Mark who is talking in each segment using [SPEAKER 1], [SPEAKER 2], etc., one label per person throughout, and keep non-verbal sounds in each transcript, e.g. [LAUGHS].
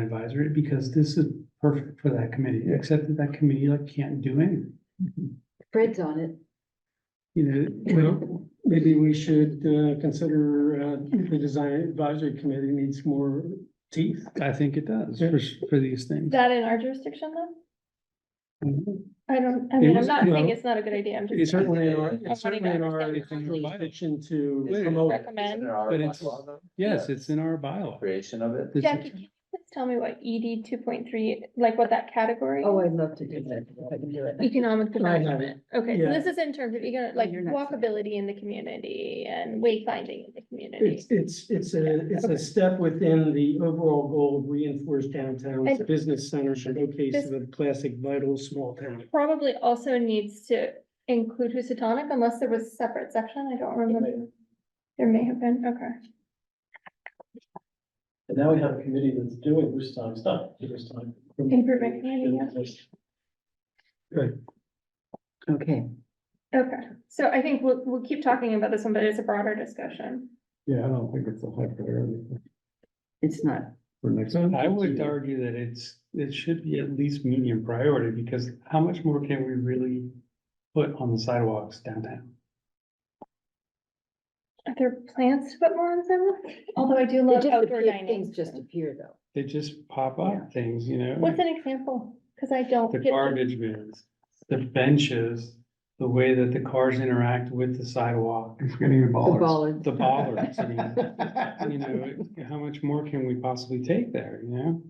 [SPEAKER 1] advisory, because this is perfect for that committee, except that that committee like can't do anything.
[SPEAKER 2] Fred's on it.
[SPEAKER 1] You know,
[SPEAKER 3] Well, maybe we should uh, consider uh, the design advisory committee needs more teeth.
[SPEAKER 1] I think it does for, for these things.
[SPEAKER 4] that in our jurisdiction though? I don't, I
[SPEAKER 1] It
[SPEAKER 4] mean, I'm
[SPEAKER 1] was-
[SPEAKER 4] not saying
[SPEAKER 3] well,
[SPEAKER 4] it's not a good idea, I'm
[SPEAKER 3] It's
[SPEAKER 4] just
[SPEAKER 3] certainly in our,
[SPEAKER 4] I
[SPEAKER 3] it's certainly in our
[SPEAKER 4] understand
[SPEAKER 1] the concept.
[SPEAKER 3] intention to
[SPEAKER 5] Is it
[SPEAKER 3] promote.
[SPEAKER 5] rec-
[SPEAKER 4] recommend.
[SPEAKER 5] Is it our
[SPEAKER 1] But it's-
[SPEAKER 5] bylaw, though?
[SPEAKER 1] Yes,
[SPEAKER 5] Yeah.
[SPEAKER 1] it's in our bylaw.
[SPEAKER 5] Creation of it.
[SPEAKER 1] This-
[SPEAKER 4] Jackie, can you please tell me what ED two point three, like what that category?
[SPEAKER 2] Oh, I'd love to do that, if I can do it.
[SPEAKER 4] Economic
[SPEAKER 3] have
[SPEAKER 4] development,
[SPEAKER 3] it.
[SPEAKER 4] okay,
[SPEAKER 3] Yeah.
[SPEAKER 4] so this is in terms of, economic like
[SPEAKER 2] you're not-
[SPEAKER 4] walkability in the community and wayfinding in the community.
[SPEAKER 3] It's, it's, it's a, it's a step within the overall goal of reinforced downtown's
[SPEAKER 4] And-
[SPEAKER 3] business center showcase
[SPEAKER 4] This-
[SPEAKER 3] of a classic vital small town.
[SPEAKER 4] Probably also needs to include Housatonic unless there was a separate section, I don't remember. There may have been, okay,
[SPEAKER 6] And now we have a committee that's doing this time stuff, this time.
[SPEAKER 4] Improvement committee,
[SPEAKER 2] Okay,
[SPEAKER 4] okay, so I think we'll, we'll keep talking about this one, but it's a broader discussion.
[SPEAKER 7] Yeah, I don't think it's a high priority
[SPEAKER 2] it's not,
[SPEAKER 7] for next.
[SPEAKER 1] I would argue that it's, it should be at least medium priority, because how much more can we really put on the sidewalks downtown?
[SPEAKER 4] Are there plans to put more on them? Although I do
[SPEAKER 2] they
[SPEAKER 4] love
[SPEAKER 2] just
[SPEAKER 4] outdoor
[SPEAKER 2] appear,
[SPEAKER 4] dining.
[SPEAKER 2] things just appear though.
[SPEAKER 1] They just pop up things, you know,
[SPEAKER 4] What's an example? Cause I don't.
[SPEAKER 1] the
[SPEAKER 4] get to-
[SPEAKER 1] garbage bins, the benches, the way that the cars interact with the sidewalk,
[SPEAKER 7] Getting the
[SPEAKER 2] The
[SPEAKER 7] ballers.
[SPEAKER 2] ballard,
[SPEAKER 1] the
[SPEAKER 2] [LAUGHS]
[SPEAKER 1] bollards, I mean. You know, how much more can we possibly take there, you know?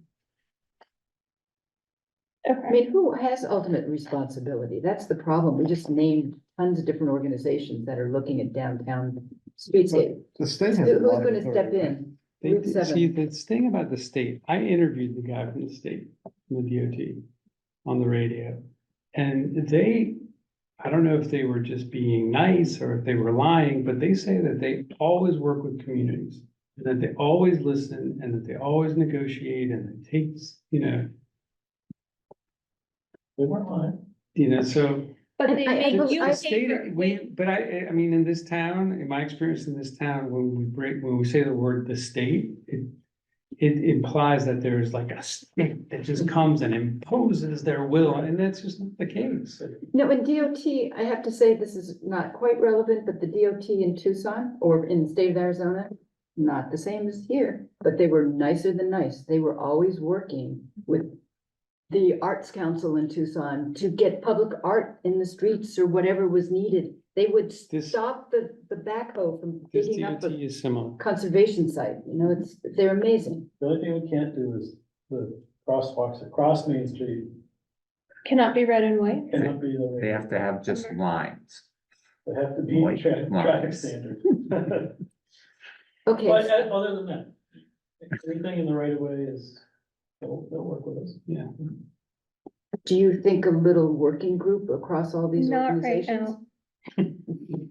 [SPEAKER 2] I
[SPEAKER 4] Okay,
[SPEAKER 2] mean, who has ultimate responsibility? That's the problem. We just named tons of different organizations that are looking at downtown streetscape.
[SPEAKER 7] The state has. a
[SPEAKER 2] Who's
[SPEAKER 7] lot of
[SPEAKER 2] gonna step
[SPEAKER 7] authority, right?
[SPEAKER 2] in?
[SPEAKER 1] They,
[SPEAKER 2] Route
[SPEAKER 1] did- see, the thing about the state, I interviewed the guy from the state, from the DOT, on the radio. And they, I don't know if they were just being nice or if they were lying, but they say that they always work with communities. And that they always listen and that they always negotiate and it takes, you know,
[SPEAKER 6] They weren't lying.
[SPEAKER 1] you know, so.
[SPEAKER 4] but they
[SPEAKER 2] I- I
[SPEAKER 4] make
[SPEAKER 2] hope-
[SPEAKER 4] you.
[SPEAKER 2] I-
[SPEAKER 1] The
[SPEAKER 4] pay for
[SPEAKER 1] state,
[SPEAKER 4] it.
[SPEAKER 1] we, but I, I mean, in this town, in my experience in this town, when we break, when we say the word the state, it. It implies that there's like a state that just
[SPEAKER 2] Mm-hmm.
[SPEAKER 1] comes and imposes their will, and that's just not the case.
[SPEAKER 2] No, in DOT, I have to say this is not quite relevant, but the DOT in Tucson or in the state of Arizona, not the same as here, but they were nicer than nice. They were always working with the Arts Council in Tucson to get public art in the streets or whatever was needed. They would
[SPEAKER 1] This-
[SPEAKER 2] stop the, the backhoe from
[SPEAKER 1] This
[SPEAKER 2] digging up
[SPEAKER 1] DOT
[SPEAKER 2] a
[SPEAKER 1] is similar.
[SPEAKER 2] conservation site, you know, it's, they're amazing.
[SPEAKER 6] The only thing we can't do is the crosswalks across Main Street
[SPEAKER 4] Cannot be red and white.
[SPEAKER 6] cannot be the. way-
[SPEAKER 5] They have to have just lines.
[SPEAKER 6] They have to be
[SPEAKER 5] White
[SPEAKER 6] tra- traffic
[SPEAKER 5] lines. [LAUGHS]
[SPEAKER 6] standard.
[SPEAKER 2] Okay,
[SPEAKER 6] But
[SPEAKER 2] so-
[SPEAKER 6] uh, other than that, everything in the right of way is, they'll, they'll work with us.
[SPEAKER 2] do you think a little working group across all these
[SPEAKER 4] Not right
[SPEAKER 2] organizations?
[SPEAKER 4] now.
[SPEAKER 2] [LAUGHS]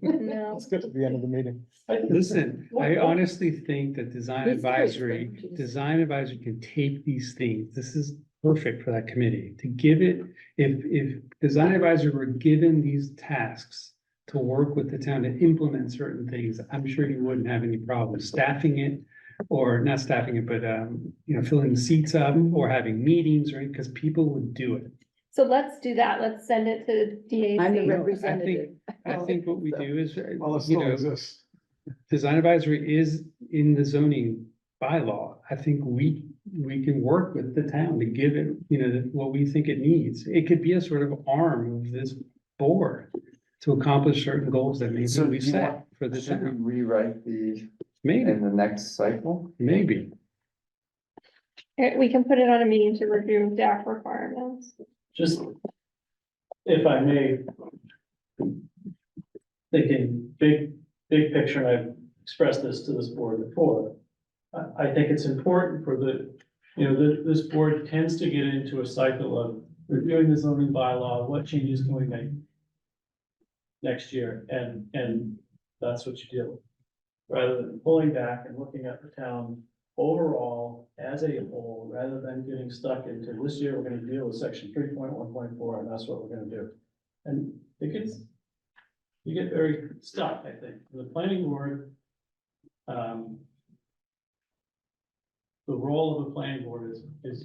[SPEAKER 4] No,
[SPEAKER 7] Let's get to the end of the meeting.
[SPEAKER 6] I think-
[SPEAKER 1] Listen, I honestly think that design
[SPEAKER 2] Be serious, though,
[SPEAKER 1] advisory,
[SPEAKER 2] Jesus.
[SPEAKER 1] design advisory can take these things, this is perfect for that committee, to give it. If, if design advisory were given these tasks to work with the town to implement certain things, I'm sure you wouldn't have any problem staffing it. Or not staffing it, but, um, you know, filling the seats up or having meetings, right, because people would do it.
[SPEAKER 4] so let's do that, let's send it to
[SPEAKER 2] I'm the
[SPEAKER 1] No, I
[SPEAKER 4] DAC.
[SPEAKER 1] rep-
[SPEAKER 2] representative.
[SPEAKER 1] I
[SPEAKER 2] Oh,
[SPEAKER 1] think what we
[SPEAKER 2] so-
[SPEAKER 1] do is,
[SPEAKER 7] Well, it
[SPEAKER 1] you
[SPEAKER 7] still
[SPEAKER 1] know,
[SPEAKER 7] exists.
[SPEAKER 1] design advisory is in the zoning bylaw. I think we, we can work with the town to give it, you know, what we think it needs. It could be a sort of arm of this board to accomplish certain goals that maybe
[SPEAKER 5] So
[SPEAKER 1] we
[SPEAKER 5] do you
[SPEAKER 1] set
[SPEAKER 5] want-
[SPEAKER 1] for the
[SPEAKER 5] Should we
[SPEAKER 1] town.
[SPEAKER 5] rewrite the,
[SPEAKER 1] Maybe,
[SPEAKER 5] in the next cycle?
[SPEAKER 1] maybe.
[SPEAKER 4] Uh, We can put it on a meeting to review DAC requirements.
[SPEAKER 6] Just, if I may, thinking big, big picture, and I've expressed this to this board before. I, I think it's important for the, you know, the, this board tends to get into a cycle of reviewing the zoning bylaw, what changes can we make next year, and, and that's what you deal with. Rather than pulling back and looking at the town overall as a whole, rather than getting stuck into this year, we're gonna deal with section three point one point four, and that's what we're gonna do. And it gets, you get very stuck, I think, the planning board. Um. the role of the planning board is, is